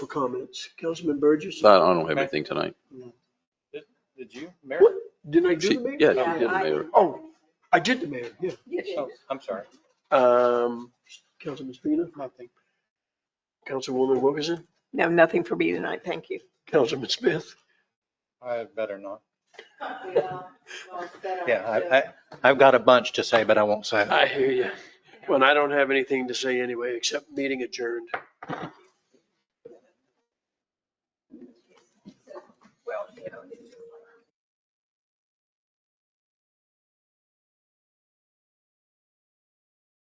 comments. Councilman Burgess? So I don't I don't have anything tonight. Did you, Mayor? Didn't I do She, the mayor? yeah, Yeah, she did, I- Mayor. Oh, I did the mayor, yeah. You did. Oh, I'm sorry. Um, Councilman Spina? Nothing. Councilwoman Wilkerson? No, nothing for me tonight. Thank you. Councilman Smith? I better not. Yeah, I, Yeah. I, I've got a bunch to say, but I won't say it. I hear you. Well, I don't have anything to say anyway, except meeting adjourned.